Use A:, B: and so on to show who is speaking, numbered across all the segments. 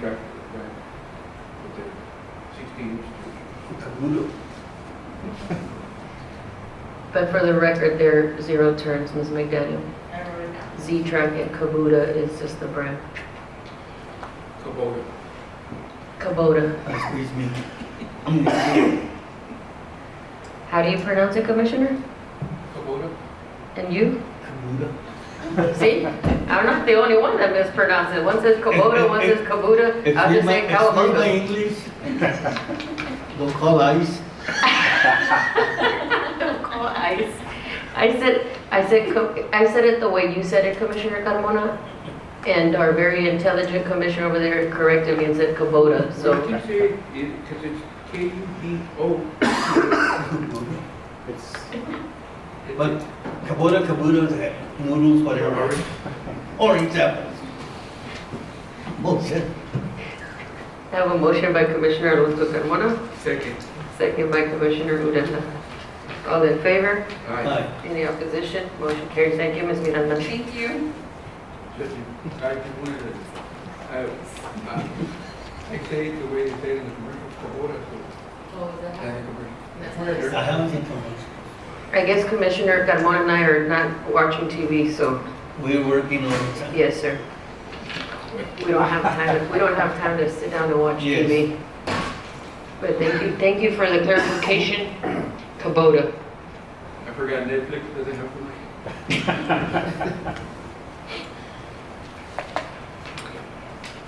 A: Right, right. With the sixteen inch.
B: But for the record, they're zero turns, Ms. McDaniel.
C: I wrote it down.
B: Z-Track and Kubota is just the brand.
A: Kubota.
B: Kubota.
D: Excuse me.
B: How do you pronounce it, Commissioner?
A: Kubota?
B: And you? See? I'm not the only one that mispronounced it. One says Kubota, one says Kubota. I'll
D: Excuse
B: just
D: my,
B: say
D: excuse my
B: Cowabunga.
D: English. Don't call ICE.
B: Don't call ICE. I said, I said, Co- I said it the way you said it, Commissioner Carmona. And our very intelligent commissioner over there corrected me and said Kubota,
A: What
B: so.
A: you say, because it's K U B O.
E: It's,
D: But Kubota, Kubota, eh, noodles, whatever. Orange apples. Bullshit.
B: I have a motion by Commissioner Alonso Carmona.
A: Second.
B: Second by Commissioner Uranda. All in favor?
A: Aye.
D: Aye.
B: Any opposition? Motion carries. Thank you, Ms. Miranda.
C: Thank you.
A: Just, I just wanted to, I, uh, I say it the way they say it in the commercial, Kubota, so.
C: What was
A: yeah,
C: that?
A: the commercial.
C: That's
A: Whatever.
D: I haven't seen much.
B: I guess Commissioner Carmona and I are not watching TV, so
D: We're working on it.
B: yes, sir. We don't have time, we don't have time to sit down and watch
D: Yes.
B: TV. But thank you, thank you for the clarification. Kubota.
A: I forgot Netflix doesn't have commercial.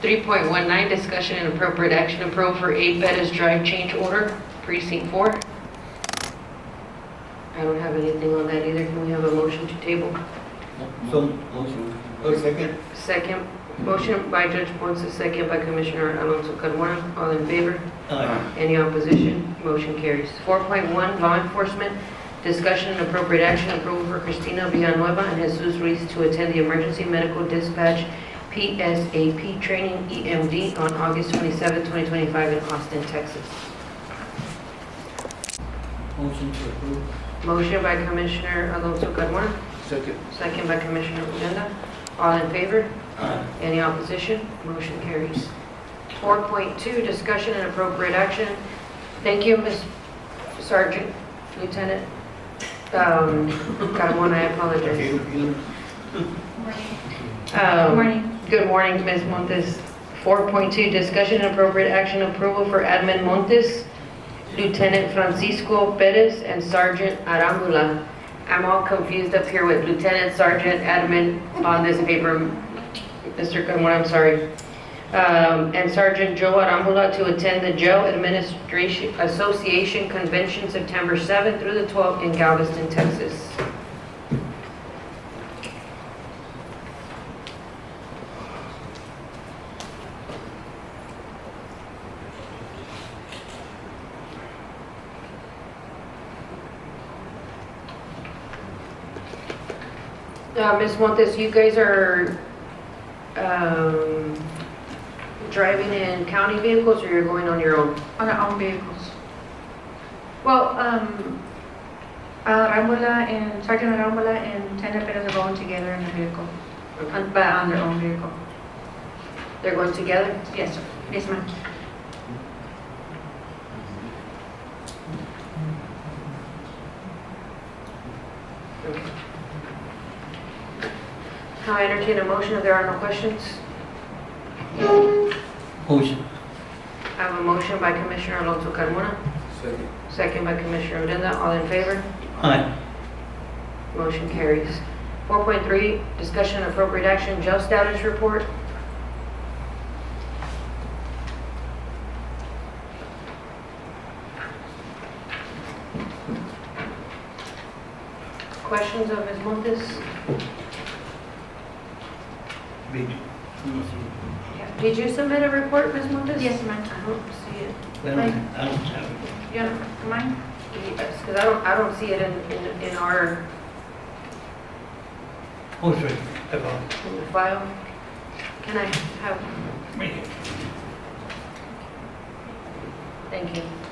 B: Three point one nine, discussion and appropriate action approved for eight Bettis Drive change order, precinct four. I don't have anything on that either. Can we have a motion to table?
D: So, motion. Oh, second.
B: Second, motion by Judge Ponce, second by Commissioner Alonso Carmona. All in favor?
D: Aye.
B: Any opposition? Motion carries. 4.1, law enforcement, discussion and appropriate action, approval for Cristina Villanueva and Jesus Ruiz to attend the emergency medical dispatch PSAP training EMD on August 27, 2025 in Austin, Texas.
D: Motion to approve.
B: Motion by Commissioner Alonso Carmona,
A: Second.
B: second by Commissioner Odena. All in favor?
A: Aye.
B: Any opposition? Motion carries. 4.2, discussion and appropriate action. Thank you, Ms. Sergeant, Lieutenant um, Carmona, I apologize.
D: Okay.
B: Um,
C: morning.
B: Good morning, Ms. Montes. 4.2, discussion and appropriate action approval for Admin Montes, Lieutenant Francisco Perez, and Sergeant Arambula. I'm all confused up here with Lieutenant, Sergeant, Admin on this paper, Mr. Carmona, I'm sorry. Um, And Sergeant Joe Arambula to attend the Jail Administration Association Convention September 7th through the 12th in Galveston, Texas. Uh, Ms. Montes, you guys are um, driving in county vehicles or you're going on your own?
C: On our own vehicles. Well, um, uh, Rambola and Sergeant Rambola and Lieutenant Perez are going together in the vehicle,
B: Okay.
C: on- but on their own vehicle.
B: They're going together?
C: Yes, sir. Yes, ma'am.
B: I entertain a motion if there are no questions.
D: Motion.
B: I have a motion by Commissioner Alonso Carmona,
A: Second.
B: second by Commissioner Odena. All in favor?
D: Aye.
B: Motion carries. 4.3, discussion and appropriate action, jail status report. Questions of Ms. Montes?
D: Big.
B: Did you submit a report, Ms. Montes?
C: Yes, ma'am.
B: I don't see it.
D: I don't, I don't have it.
C: You don't mind?
B: Yes, because I don't, I don't see it in, in- in our
D: Oh, sorry. About
B: in the file. Can I have,
D: me.
B: thank you.